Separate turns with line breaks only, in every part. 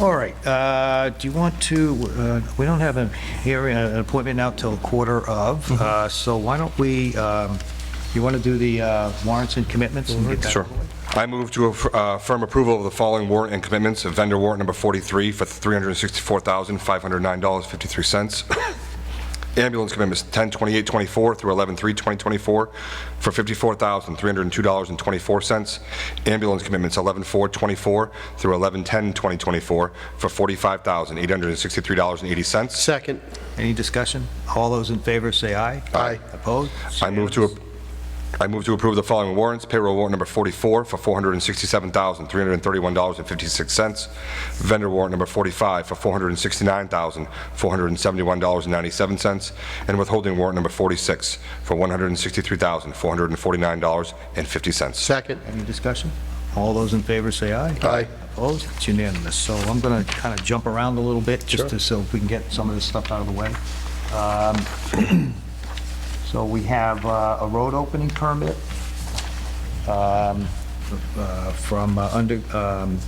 All right, uh, do you want to, uh, we don't have a hearing, uh, an appointment now till quarter of,
Mm-hmm.
uh, so why don't we, um, you want to do the uh, warrants and commitments? and get that
Sure.
over with?
I move to aff- uh, affirm approval of the following warrant and commitments of vendor warrant number 43 for $364,509.53. Ambulance commitments 10/28/24 through 11/3/2024 for $54,302.24. Ambulance commitments 11/4/24 through 11/10/2024 for $45,863.80.
Second.
Any discussion? All those in favor say aye.
Aye.
Opposed?
I move to, ap- I move to approve the following warrants. Payroll warrant number 44 for $467,331.56. Vendor warrant number 45 for $469,471.97. And withholding warrant number 46 for $163,449.50.
Second.
Any discussion? All those in favor say aye.
Aye.
Opposed? It's unanimous. So I'm going to kind of jump around a little bit, just to, so we can get some of this stuff out of the way. Um, So we have uh, a road opening permit um, uh, from uh, under, um,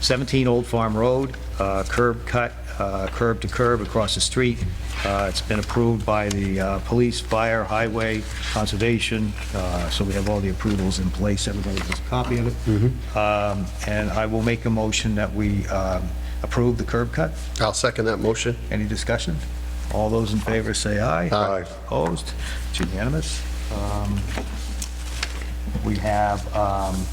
17 Old Farm Road, uh, curb cut, uh, curb to curb across the street. Uh, It's been approved by the uh, police, fire, highway, conservation, uh, so we have all the approvals in place. Everybody has a copy of it. Um, And I will make a motion that we um, approve the curb cut.
I'll second that motion.
Any discussion? All those in favor say aye.
Aye.
Opposed? It's unanimous. Um, We have um,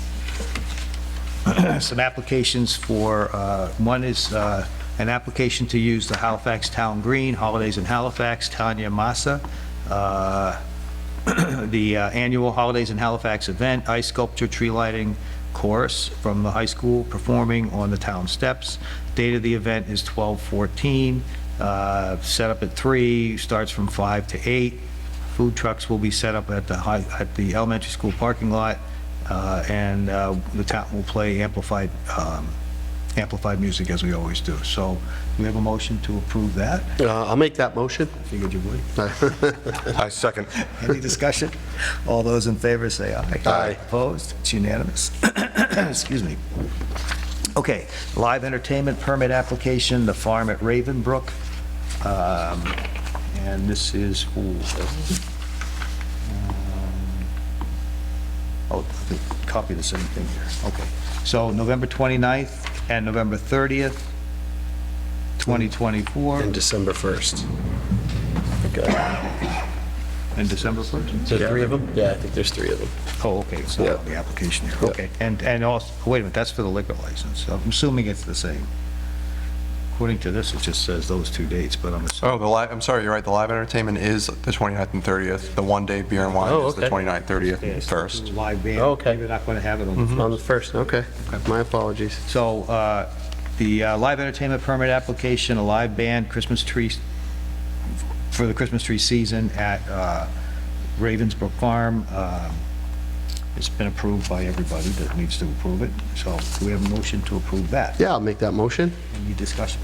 some applications for, uh, one is uh, an application to use the Halifax Town Green, Holidays in Halifax, Tanya Massa. uh, The uh, annual Holidays in Halifax event, ice sculpture, tree lighting chorus from the high school performing on the town steps. Date of the event is 12/14, uh, set up at 3, starts from 5 to 8. Food trucks will be set up at the high, at the elementary school parking lot, uh, and uh, the town will play amplified, um, amplified music as we always do. So we have a motion to approve that.
Uh, I'll make that motion.
Figured you would.
I second.
Any discussion? All those in favor say aye.
Aye.
Opposed? It's unanimous. Excuse me. Okay, live entertainment permit application, The Farm at Ravenbrook. Um, And this is, ooh, um, Oh, the- copy the same thing here, okay. So November 29th and November 30th, 2024,
and December 1st.
and December 1st?
So three of them? Yeah, I think there's three of them.
Oh, okay, it's not on the application here, okay. And, and also, wait a minute, that's for the liquor license, So I'm assuming it's the same. According to this, it just says those two dates, but I'm assuming,
Oh, the live, I'm sorry, you're right, the live entertainment is the 29th and 30th. The one-day beer and wine
Oh,
is the
okay.
29th, 30th,
yeah,
and
it's
1st.
live band.
Okay. Mm-hmm.
Maybe They're not gonna have it on the
Mm-hmm. On the first, okay. My apologies.
So uh, the uh, live entertainment permit application, a live band, Christmas tree, for the Christmas tree season at uh, Ravensbrook Farm. um, It's been approved by everybody that needs to approve it. So do we have a motion to approve that?
Yeah, I'll make that motion.
Any discussion?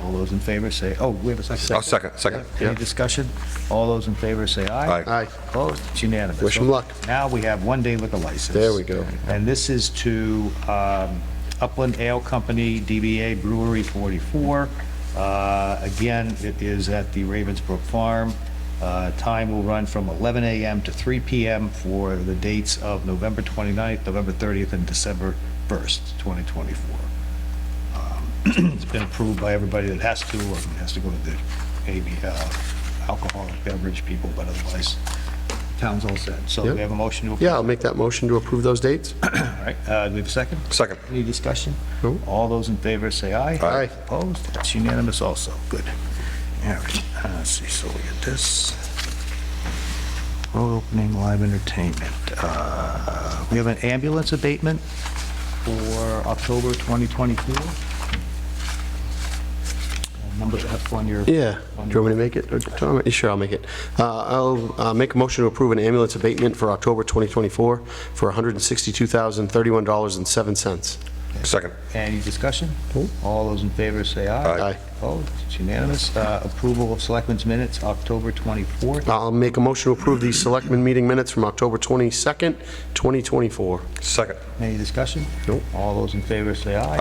All those in favor say, oh, we have a 2nd
I'll second, second.
Any discussion? All those in favor say aye.
Aye.
Aye.
Opposed? It's unanimous.
Wish 'em luck.
Now we have one-day liquor license.
There we go.
And this is to um, Upland Ale Company, DBA Brewery 44. Uh, Again, it is at the Ravensbrook Farm. Uh, Time will run from 11 a.m. to 3 p.m. for the dates of November 29th, November 30th, and December 1st, 2024. It's been approved by everybody that has to, or has to go to the, maybe, uh, alcoholic beverage people, but otherwise, town's all set. So do we
Yep.
have a motion to approve.
Yeah, I'll make that motion to approve those dates.
All right, uh, do we have a second?
Second.
Any discussion?
No.
All those in favor say aye.
Aye.
Opposed? That's unanimous also. Good. All right, uh, let's see, so we get this. Road opening, live entertainment. Uh, We have an ambulance abatement for October 2024. Numbers up on your...
Yeah. Do you want me to make it? or Tom? Sure, I'll make it. Uh, I'll uh, make a motion to approve an ambulance abatement for October 2024 for $162,031.07.
Second.
Any discussion? All those in favor say aye.
Aye.
Opposed? It's unanimous. Uh, Approval of Selectmen's Minutes, October 24th.
I'll make a motion to approve the selectmen meeting minutes from October 22nd, 2024.
Second.
Any discussion?
Nope.
All those in favor say aye.